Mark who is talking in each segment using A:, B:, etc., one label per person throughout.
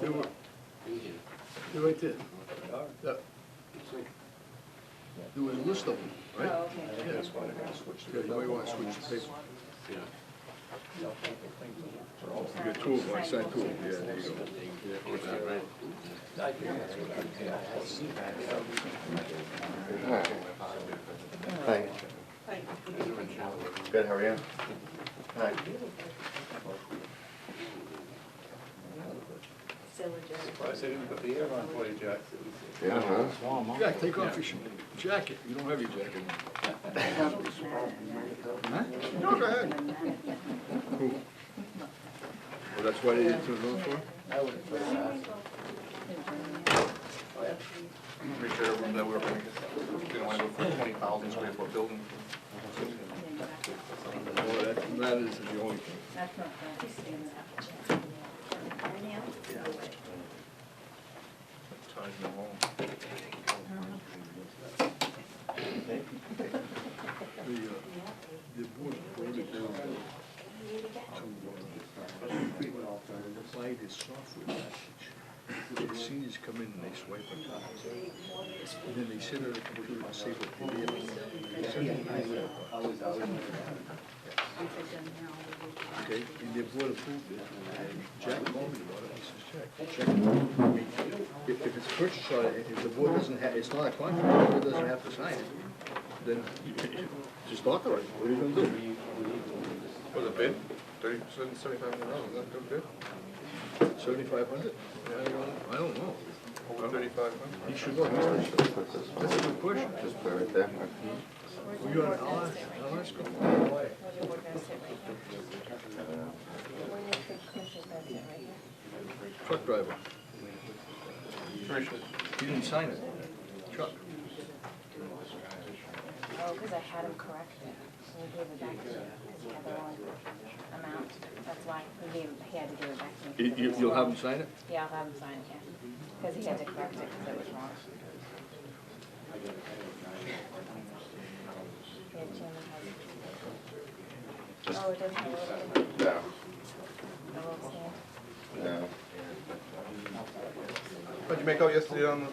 A: They were. They're right there. Yeah. There was a list of them,
B: Oh,
A: right?
B: okay.
A: Yeah,
B: Okay.
A: that's Yeah, you might wanna switch the paper. You got two of them, I signed two of them, yeah, there you go.
C: Hi,
B: Hi.
C: good, how are you? Hi.
B: Silly Jack.
D: Surprised they didn't put the air on for you, Jack.
C: Yeah, huh?
A: Jack, take off your sh- jacket, you don't have your jacket on. No, go ahead. Who? Well, that's why they didn't turn it on for?
D: Pretty sure that we're, gonna get- we don't want to go for a twenty thousand square foot building.
A: Well, that matters the only thing.
B: That's not bad. He's standing up. Arnell?
D: Taj Mahal.
A: The, uh, the board voted down to, uh, buy this software package. The seniors come in and they swipe a card. And then they sit at a computer and say what they did. They send it to you, Okay, and the board approved it. And Jack called me about it, he says, Jack, check it. If, if it's purchased, uh, if the board doesn't have, it's not a contract, the board doesn't have to sign it, then just authorize it, what are you gonna do?
D: Was it bid? Thirty, seventy-five hundred dollars, is that good bid?
A: Seventy-five hundred? I don't know.
D: Over thirty-five hundred?
A: You should know, Mr. Sh-
C: Put this
A: that's a
C: one,
A: good question.
C: just put it right there.
A: Were you on Alaska? Alaska?
B: Where's your board gonna sit right here? Where your commissioner's gonna sit right here?
A: Truck driver.
D: Commissioner,
A: He didn't sign it. Chuck.
B: Oh, because I had him correct. So we gave it back to him because he had the wrong amount. That's why we gave, he had to give it back to me. 'cause
A: You,
B: it
A: you-
B: was
A: you'll have
B: wrong.
A: him sign it?
B: Yeah, I'll have him sign it, yeah. Because he had to correct it because it was wrong. Yeah, Jim has- Oh, it doesn't have a little,
C: No,
B: a little stand.
C: no.
D: how'd you make out yesterday on the,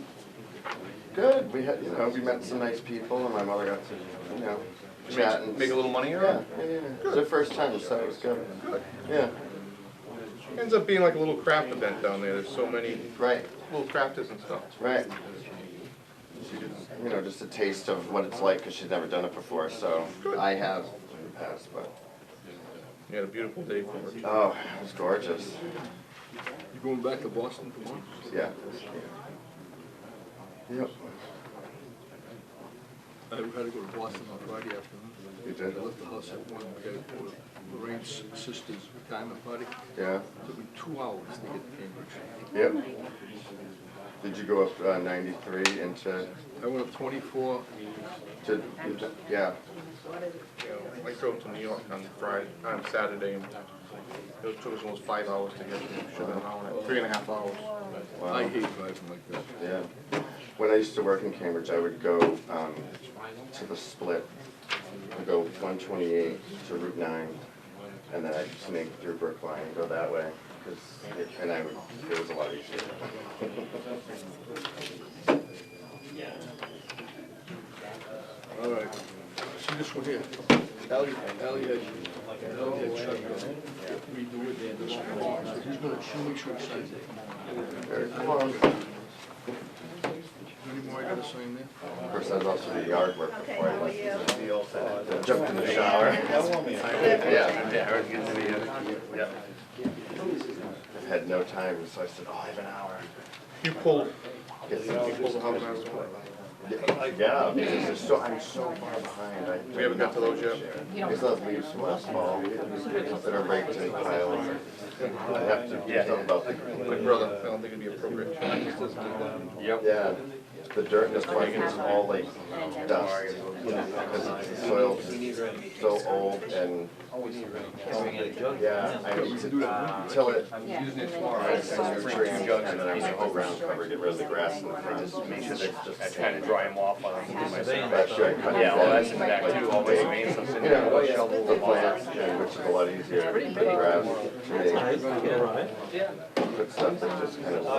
C: Good, we had, you know, we met some nice people and my mother got to, you know, chat and.
D: make a little money or?
C: Yeah, yeah, yeah. It was her first time, so it was good. Yeah,
D: Ends up being like a little craft event down there, there's so many
C: right,
D: little crafters and stuff.
C: right. You know, just a taste of what it's like, cause she's never done it before, so I have in the past, but,
D: You had a beautiful day for it.
C: oh, it was gorgeous,
A: You going back to Boston tomorrow?
C: yeah. Yep.
A: I had to go to Boston on Friday afternoon.
C: You did?
A: I left the house at one, we got to Lorraine's sister's retirement party.
C: Yeah,
A: Took me two hours to get to Cambridge.
C: yep. Did you go up uh, 93 into,
A: I went up twenty-four,
C: to, yeah,
D: You know, I drove to New York on Friday, on Saturday, and it took us almost five hours to get there, should have been an hour, and a- three and a half hours.
A: I hate driving like that.
C: yeah. When I used to work in Cambridge, I would go um, to the split, I'd go 128 to Route 9, and then I'd just make through Brookline and go that way, 'cause it- and I would, it was a lot easier.
A: All right. See this one here? Ally, Ally had, Ally had Chuck redo it and this one. He's gonna, she'll make sure it's signed.
C: Very close.
A: Any more I gotta sign there?
C: Of course, I was also the yard work before I left. I Jumped in the shower. Yeah, yeah, I was getting to the, uh, yeah. I had no time, so I said, oh, I have an hour.
D: You pulled,
C: Yes.
D: you pulled the house out of the way.
C: Yeah, because they're so, I'm so far behind, I.
D: We haven't got to those yet.
C: I still have leaves from last fall that are raked in piles. I have to do something about the.
D: My brother, I don't think it'd be appropriate.
C: Yeah, The dirt in this park is all like
B: And it does.
C: dust, because the soil's so old and, yeah, I until it,
B: Yeah, and then
C: Alright,
B: it's
C: and your
B: soft.
C: tree and guts, and then I went whole ground cover, get rid of the grass in the front. Make sure it's just-
E: I tried to dry them off while I was doing my survey.
C: That should cut
E: Yeah, well,
C: down.
E: that's in the back too, all my remains, I'm sitting
C: Yeah,
E: there,
C: well,
E: with
C: yeah,
E: shovels
C: the
E: and all that.
C: plants, yeah, which is a lot easier than grass. to me. Put stuff that just kind of